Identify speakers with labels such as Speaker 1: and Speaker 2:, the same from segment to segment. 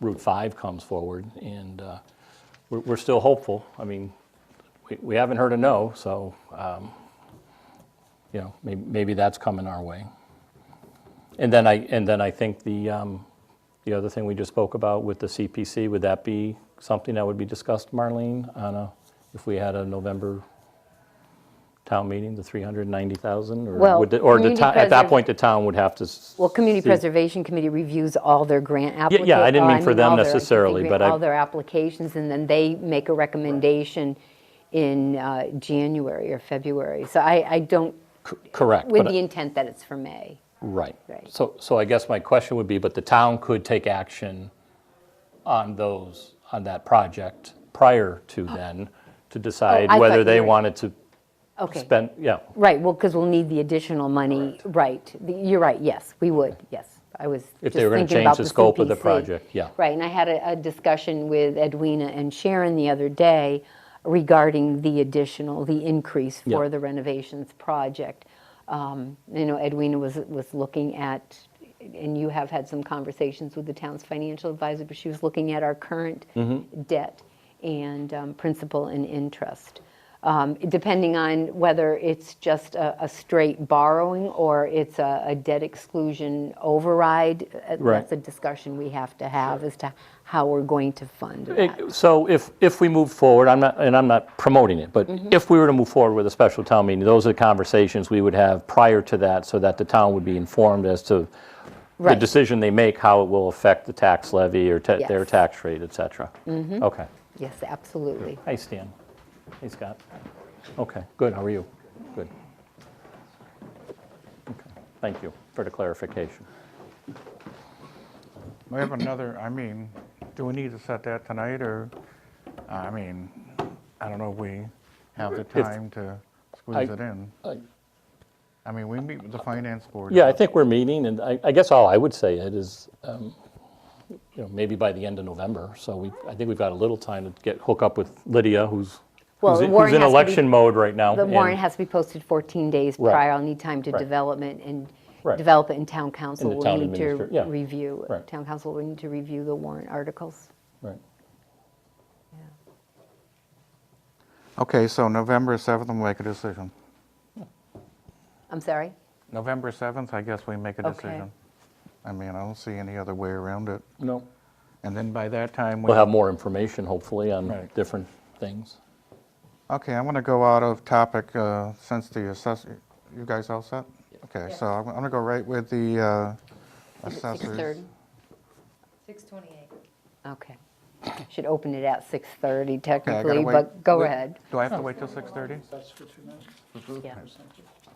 Speaker 1: Route 5 comes forward, and uh, we're we're still hopeful. I mean, we- we haven't heard a no, so, um, you know, may- maybe that's coming our way. And then I, and then I think the, um, the other thing we just spoke about with the CPC, would that be something that would be discussed, Marlene, on a, if we had a November town meeting, the 390,000? or
Speaker 2: Well,
Speaker 1: would the- Or the,
Speaker 2: community
Speaker 1: town- at that
Speaker 2: preserv-
Speaker 1: point, the town would have to. s-
Speaker 2: Well, Community
Speaker 1: see-
Speaker 2: Preservation Committee reviews all their grant uh, applications.
Speaker 1: yeah, I didn't mean for them necessarily, but I-
Speaker 2: All their applications, and then they make a recommendation in uh, January or February. So I, I don't,
Speaker 1: Correct.
Speaker 2: with
Speaker 1: but- uh,
Speaker 2: the intent that it's for May.
Speaker 1: Right.
Speaker 2: Right.
Speaker 1: So, so I guess my question would be, but the town could take action on those, on that project prior to then, to decide
Speaker 2: Oh, I
Speaker 1: whether
Speaker 2: thought
Speaker 1: they
Speaker 2: you were-
Speaker 1: wanted to
Speaker 2: Okay,
Speaker 1: spend, yeah,
Speaker 2: right, well, because we'll need the additional money, right. The- You're right, yes, we would, yes. I was
Speaker 1: if
Speaker 2: just
Speaker 1: they were going to
Speaker 2: thinking
Speaker 1: change
Speaker 2: about
Speaker 1: the scope of the
Speaker 2: CPC.
Speaker 1: project, yeah.
Speaker 2: Right, and I had a, a discussion with Edwina and Sharon the other day regarding the additional, the increase
Speaker 1: Yeah.
Speaker 2: for the renovations project. Um, You know, Edwina was, was looking at, and you have had some conversations with the town's financial advisor, but she was looking at our current debt and um, principal and interest. Um, Depending on whether it's just a, a straight borrowing or it's a, a debt exclusion override, uh,
Speaker 1: Right.
Speaker 2: that's a discussion we have to have as to how we're going to fund
Speaker 1: It-
Speaker 2: that.
Speaker 1: So if, if we move forward, I'm not, and I'm not promoting it, but
Speaker 2: Mm-hmm.
Speaker 1: if we were to move forward with a special town meeting, those are the conversations we would have prior to that, so that the town would be informed as to the
Speaker 2: Right.
Speaker 1: decision they make, how it will affect the tax levy or ta- their
Speaker 2: Yes. Mm-hmm.
Speaker 1: tax rate, et cetera. Okay.
Speaker 2: Yes, absolutely.
Speaker 1: Hey, Stan. Hey, Scott. Okay, good, how are you? Good. Okay, Thank you for the clarification.
Speaker 3: We have another, I mean, do we need to set that tonight, or, I mean, I don't know if we have the time to squeeze
Speaker 1: I-
Speaker 3: it in.
Speaker 1: I-
Speaker 3: I mean, we meet with the finance board.
Speaker 1: Yeah, I think we're meeting, and I I guess all I would say it is, um, you know, maybe by the end of November, so we, I think we've got a little time to get, hook up with Lydia, who's,
Speaker 2: Well,
Speaker 1: who's
Speaker 2: the
Speaker 1: in- who's
Speaker 2: warrant
Speaker 1: in
Speaker 2: has to be-
Speaker 1: election mode right now.
Speaker 2: The
Speaker 1: and-
Speaker 2: warrant has to be posted 14 days
Speaker 1: Right.
Speaker 2: prior. I'll need time to
Speaker 1: Right.
Speaker 2: development and
Speaker 1: Right.
Speaker 2: develop it in town council.
Speaker 1: And the
Speaker 2: will
Speaker 1: town
Speaker 2: need to
Speaker 1: administrat- yeah.
Speaker 2: Review,
Speaker 1: Right.
Speaker 2: town council will need to review the warrant articles.
Speaker 1: Right.
Speaker 3: Okay, so November 7th, we'll make a decision.
Speaker 2: I'm sorry?
Speaker 3: November 7th, I guess we make a
Speaker 2: Okay.
Speaker 3: decision. I mean, I don't see any other way around it.
Speaker 1: No,
Speaker 3: And then by that time, we.
Speaker 1: we'll have more information, hopefully, on
Speaker 3: Right.
Speaker 1: different things.
Speaker 3: Okay, I want to go out of topic uh, since the assessor, you guys all set? Okay, so I'm going to go right with the uh, assessors.
Speaker 2: 6:30?
Speaker 4: 628.
Speaker 2: Okay. Should open it at 6:30
Speaker 3: Okay, I gotta
Speaker 2: technically,
Speaker 3: wait-
Speaker 2: but go
Speaker 3: wait-
Speaker 2: ahead.
Speaker 3: Do I have to wait till 6:30?
Speaker 2: Yeah.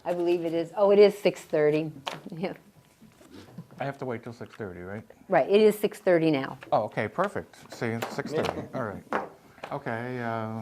Speaker 2: I believe it is, oh, it is 6:30. Yeah.
Speaker 3: I have to wait till 6:30, right?
Speaker 2: Right, it is 6:30 now.
Speaker 3: Oh, okay, perfect. See, 6:30, all right. Okay, uh,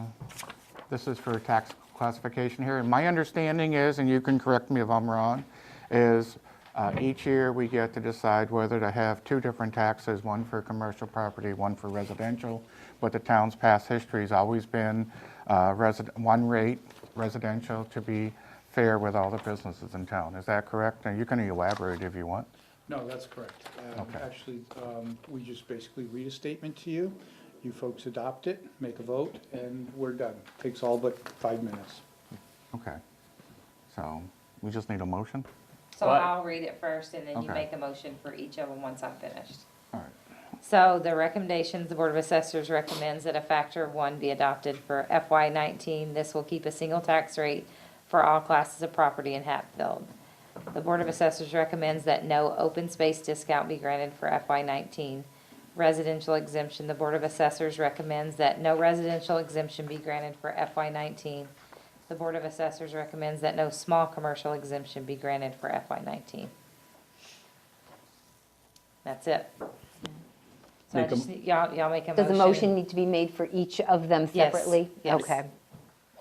Speaker 3: this is for tax classification here. And my understanding is, and you can correct me if I'm wrong, is uh, each year we get to decide whether to have two different taxes, one for commercial property, one for residential. But the town's past history has always been uh, resi- one rate residential to be fair with all the businesses in town. Is that correct? And you can elaborate if you want.
Speaker 5: No, that's correct. Um,
Speaker 3: Okay.
Speaker 5: Actually, um, we just basically read a statement to you, you folks adopt it, make a vote, and we're done. Takes all but five minutes.
Speaker 3: Okay. So we just need a motion?
Speaker 4: So
Speaker 1: What?
Speaker 4: I'll read it first, and then you
Speaker 3: Okay.
Speaker 4: make a motion for each of them once I'm finished.
Speaker 3: All right.
Speaker 4: So the recommendations, the Board of Assessors recommends that a factor of one be adopted for FY nineteen. This will keep a single tax rate for all classes of property in Hatfield. The Board of Assessors recommends that no open space discount be granted for FY nineteen. Residential exemption, the Board of Assessors recommends that no residential exemption be granted for FY nineteen. The Board of Assessors recommends that no small commercial exemption be granted for FY nineteen. That's it. So I
Speaker 1: Make a-
Speaker 4: just, need- y'all, y'all make a motion.
Speaker 2: Does a motion need to be made for each of them
Speaker 4: Yes,
Speaker 2: separately?
Speaker 4: yes.
Speaker 2: Okay.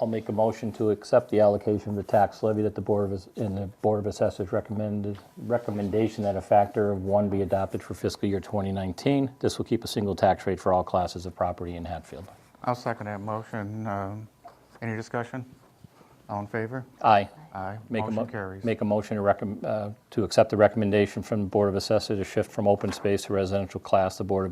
Speaker 1: I'll make a motion to accept the allocation of the tax levy that the Board of, and the Board of Assessors recommended, recommendation that a factor of one be adopted for fiscal year 2019. This will keep a single tax rate for all classes of property in Hatfield.
Speaker 3: I'll second that motion. Um, Any discussion? All in favor?
Speaker 1: Aye.
Speaker 3: Aye.
Speaker 1: Make a mo-
Speaker 3: Motion carries.
Speaker 1: Make a motion to recommend, to accept the recommendation from the Board of Assessors to shift from open space to residential class. The Board of